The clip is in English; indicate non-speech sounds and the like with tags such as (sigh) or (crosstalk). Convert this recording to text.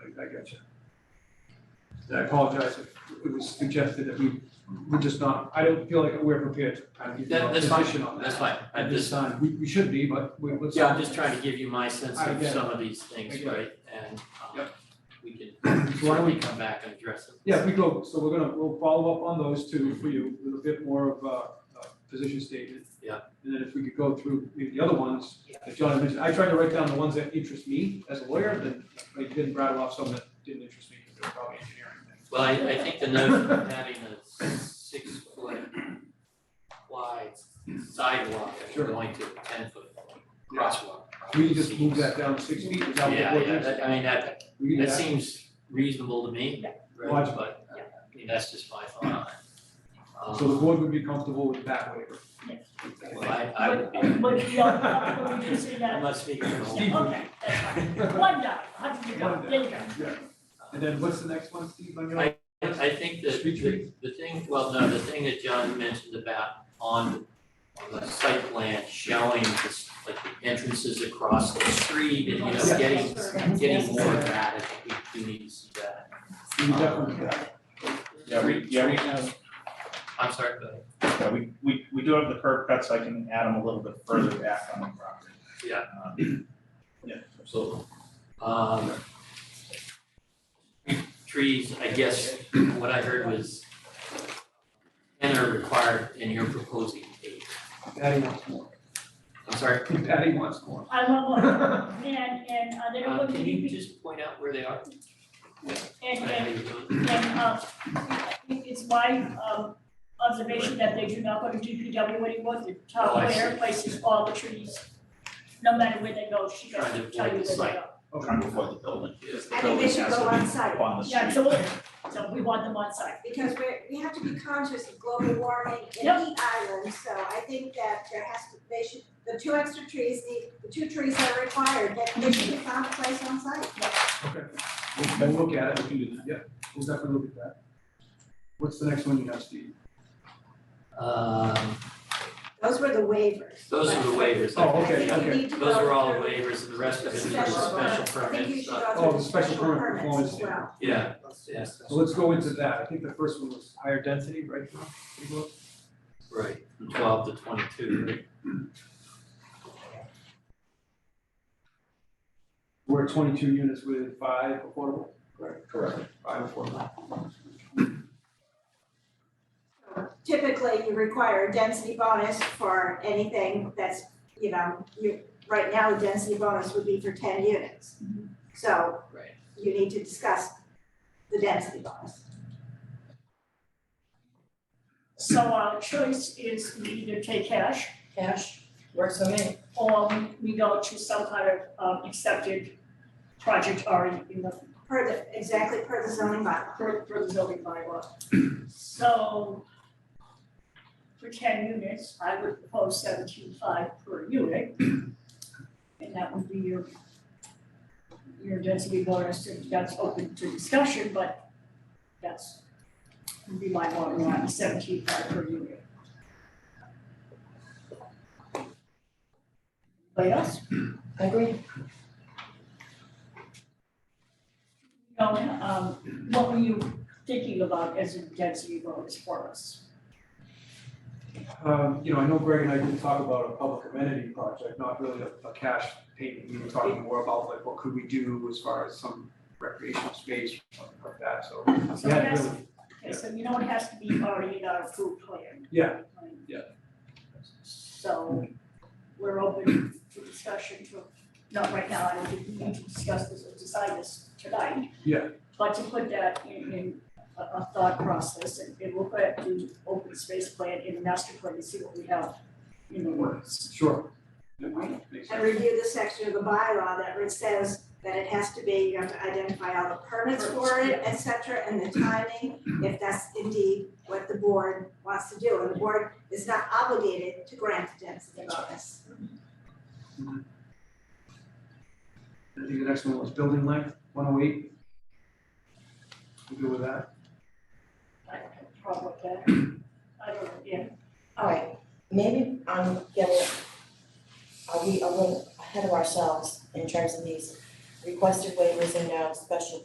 Gotcha. And I apologize if it was suggested that we, we're just not, I don't feel like we're prepared to kind of give you That, a that's fine, position on that's that fine, I at this just, time. We, we should be, but we, let's. yeah, I'm just trying to give you my sense I of get it. some of these things, I get it. right? And, um, Yep. we can So why don't we- certainly come back and address it. Yeah, we go, so we're gonna, we'll follow up on those two for you, with a bit more of a, a position statement. Yeah. And then if we could go through maybe the other ones that John had mentioned, I tried to write down the ones that interest me as a lawyer, then I didn't rattle off some that didn't interest me, because they're probably engineering things. Well, I, I think the notion of (laughs) having a six foot wide sidewalk and Sure. going to a ten foot crosswalk. We can just move seems- that down six feet, is that what Yeah, we're yeah, doing? that, I mean, that, We can do that that. seems reasonable to me, right, Logical. but, I mean, that's just my thought on it. So the Um, board would be comfortable with that waiver? well, I, I would be, But- but we don't have to reduce it I'm down. not speaking for the whole. Steve. Okay, that's fine. One dollar, how did you go? There you go. Yeah. (laughs) And then what's the next one, Steve, on your? I- I think that Speech the, the thing, well, no, the thing that John mentioned about on, on the site plan showing this, like the entrances across the street and, you know, Yeah. getting, getting more of that, I think we do need to see that. We definitely, Yeah, we, yeah, we have, I'm sorry, but, yeah, we, we, we do have the curb cuts, I can add them a little bit further back on the property. Yeah. Um, Yeah, absolutely. um, trees, I guess, what I heard was ten are required and you're proposing eight. Patty wants more, I'm sorry, Patty wants (laughs) more. I want one, and, and uh, they're um, going to can you be, just point out where they are? and, I- I- and, and, uh, I think it's my, um, observation that they do not go to DPW anymore, the Oh, town I see. where places all the trees. No matter where they go, she Trying to doesn't tell avoid you where the they site. go. Kind of before the building. Yes. I think they should go on site, Up on the street. Yeah, absolutely, so we want them on site. because we're, we have to be conscious of global warming Yep. and heat islands, so I think that there has to, they should, the two extra trees, the, the two trees that are required, that they should be found a place on site. Okay. We'll, we'll look at it, we can do that, yeah, we'll definitely look at that. What's the next one you have, Steve? Um, Those were the waivers. those are the waivers. I Oh, I think. okay, think okay. we need to go Those are all the through waivers and the rest of it is the special special permits. I think you permits. should uh, go through Oh, the special permit permits performance as standard. well. Yeah, yes, So let's go into that, I think the first one was higher density, right? John? Pretty close. right, from twelve to twenty-two, right? We're at twenty-two units with five affordable, Correct. five affordable. Typically, you require a density bonus for anything that's, you know, you, right now, the density bonus would be for ten units. So Right. you need to discuss the density bonus. So our choice is we either take cash Cash, works for me. or we go to some kind of um accepted project already in the Per the, exactly per the zoning bylaw. per per the zoning bylaw. So for ten units, I would propose seventeen five per unit. And that would be your your density bonus, and that's open to discussion, but that's would be my bottom line, seventeen five per unit. Anybody else? I agree. No, um, what were you thinking about as a density bonus for us? Um, you know, I know Greg and I did talk about a public amenity project, not really a, a cash payment. We were talking more about like, what could we do as far as some recreational space or something like that, so. So it Yeah, has, really, okay, so you know it has to be already in our approved plan, yeah, right? Yeah. So we're open to discussion to, not right now, I don't think we need to discuss this or decide this tonight. Yeah. But to put that in, in a, a thought process and, and look at the open space plan and the master plan and see what we have in the works. sure. Yeah, Makes And sense. review the section of the bylaw that it says that it has to be, you have to identify all the permits for it, et cetera, and the timing, if that's indeed what the board wants to do. And the board is not obligated to grant the density bonus. I think the next one was building length, one oh eight. We good with that? I don't have a problem with that. I don't, know, yeah, All right, maybe I'm getting, are we a little ahead of ourselves in terms of these requested waivers and now special